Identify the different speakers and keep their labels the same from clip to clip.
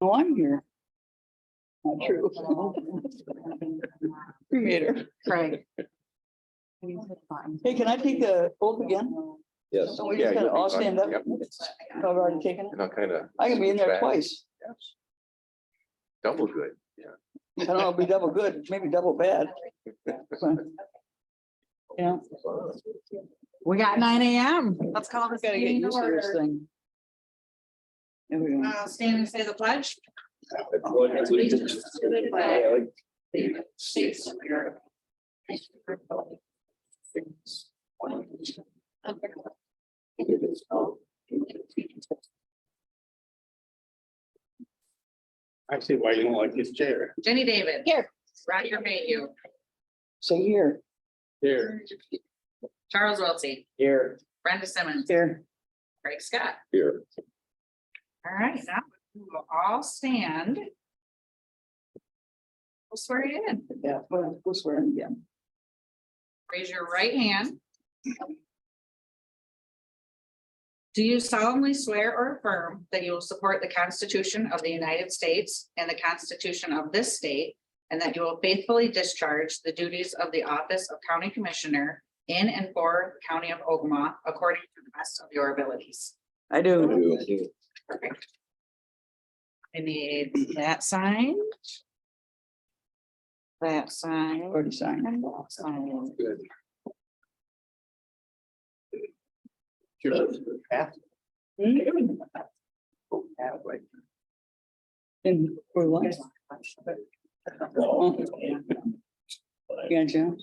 Speaker 1: Oh, I'm here. Not true. Cremator.
Speaker 2: Craig.
Speaker 1: Hey, can I take the oath again?
Speaker 3: Yes.
Speaker 1: So we
Speaker 3: Yeah,
Speaker 1: just gotta
Speaker 3: you'll be
Speaker 1: all
Speaker 3: fine.
Speaker 1: stand up?
Speaker 3: Yep.
Speaker 1: I've already taken it.
Speaker 3: And I'll kind of
Speaker 1: I can be in there
Speaker 3: Back.
Speaker 1: twice.
Speaker 3: double good.
Speaker 1: I don't know, it'll be double good, maybe double bad. Yeah.
Speaker 2: We got nine AM. Let's call this
Speaker 1: Gotta get
Speaker 2: meeting to
Speaker 1: used to this
Speaker 2: order.
Speaker 1: thing. There we go.
Speaker 2: Uh, Stand and say the pledge.
Speaker 4: I see why you don't like this chair.
Speaker 2: Jenny David.
Speaker 1: Here.
Speaker 2: Roger Mayhew.
Speaker 1: So here,
Speaker 4: Here.
Speaker 2: Charles Wiltie.
Speaker 4: Here.
Speaker 2: Brenda Simmons.
Speaker 1: here.
Speaker 2: Craig Scott.
Speaker 3: Here.
Speaker 2: All right, now we will all stand. We'll swear you in.
Speaker 1: Yeah, well, we'll swear in again.
Speaker 2: Raise your right hand. Do you solemnly swear or affirm that you will support the Constitution of the United States and the Constitution of this state? And that you will faithfully discharge the duties of the office of County Commissioner in and for the County of Ogama according to the best of your abilities?
Speaker 1: I do.
Speaker 2: Perfect. I need that signed. That sign.
Speaker 1: Already signed.
Speaker 2: And that sign.
Speaker 1: Mm, And for what? Oh. Gotcha.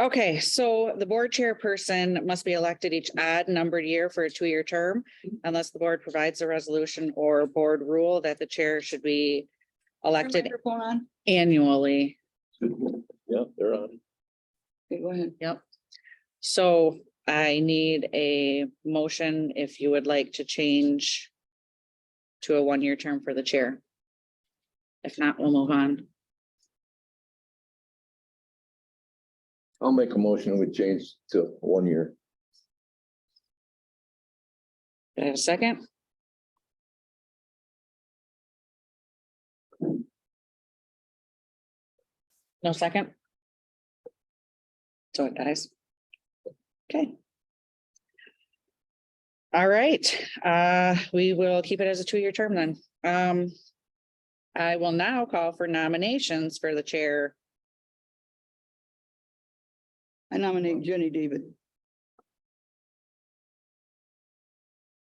Speaker 2: Okay, so the board chairperson must be elected each odd numbered year for a two-year term unless the board provides a resolution or board rule that the chair should be elected
Speaker 1: Microphone on?
Speaker 2: annually.
Speaker 3: Yeah, they're on.
Speaker 1: Okay, Go ahead.
Speaker 2: So I need a motion if you would like to change to a one-year term for the chair. If not, we'll move on.
Speaker 3: I'll make a motion with change to one year.
Speaker 2: Do I have a second? No second? So it dies. Okay. All right, uh, we will keep it as a two-year term then. Um. I will now call for nominations for the chair.
Speaker 1: I nominate Jenny David.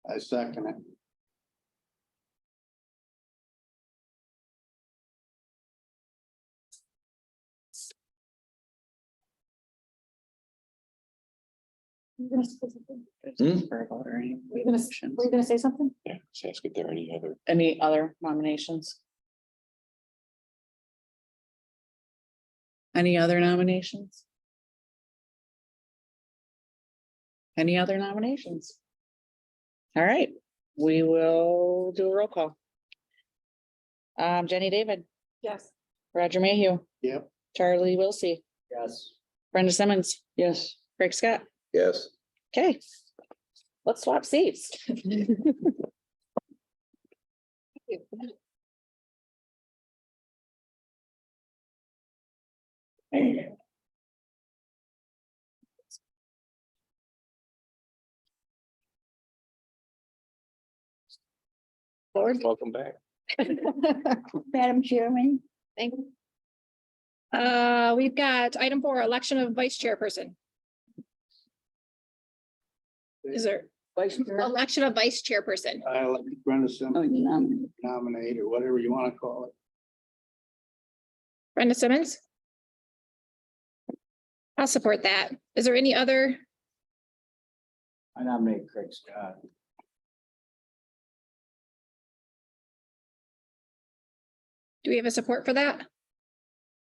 Speaker 4: I second it.
Speaker 3: Hmm?
Speaker 2: For a vote or any
Speaker 5: Were you gonna, s-
Speaker 2: motions.
Speaker 5: were you gonna say something?
Speaker 3: Yeah, so ask if there are any other.
Speaker 2: Any other nominations? Any other nominations? Any other nominations? All right, we will do a roll call. Um, Jenny David,
Speaker 5: Yes.
Speaker 2: Roger Mayhew,
Speaker 4: Yep.
Speaker 2: Charlie Wilsey,
Speaker 4: Yes.
Speaker 2: Brenda Simmons,
Speaker 1: Yes.
Speaker 2: Craig Scott.
Speaker 3: Yes.
Speaker 2: Okay. Let's swap seats.
Speaker 3: Welcome back.
Speaker 1: Madam Chairman.
Speaker 5: Thank you. Uh, we've got item four, election of vice chairperson. Is there
Speaker 1: Vice Chair.
Speaker 5: election of vice chairperson?
Speaker 4: I like Brenda
Speaker 1: Oh,
Speaker 4: Sim
Speaker 1: you nominate.
Speaker 4: nominate or whatever you want to call it.
Speaker 5: Brenda Simmons? I'll support that. Is there any other?
Speaker 4: I nominate Craig Scott.
Speaker 5: Do we have a support for that?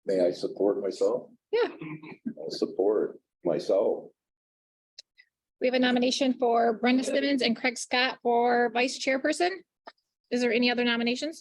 Speaker 3: May I support myself?
Speaker 5: Yeah.
Speaker 3: I'll support myself.
Speaker 5: We have a nomination for Brenda Simmons and Craig Scott for vice chairperson. Is there any other nominations?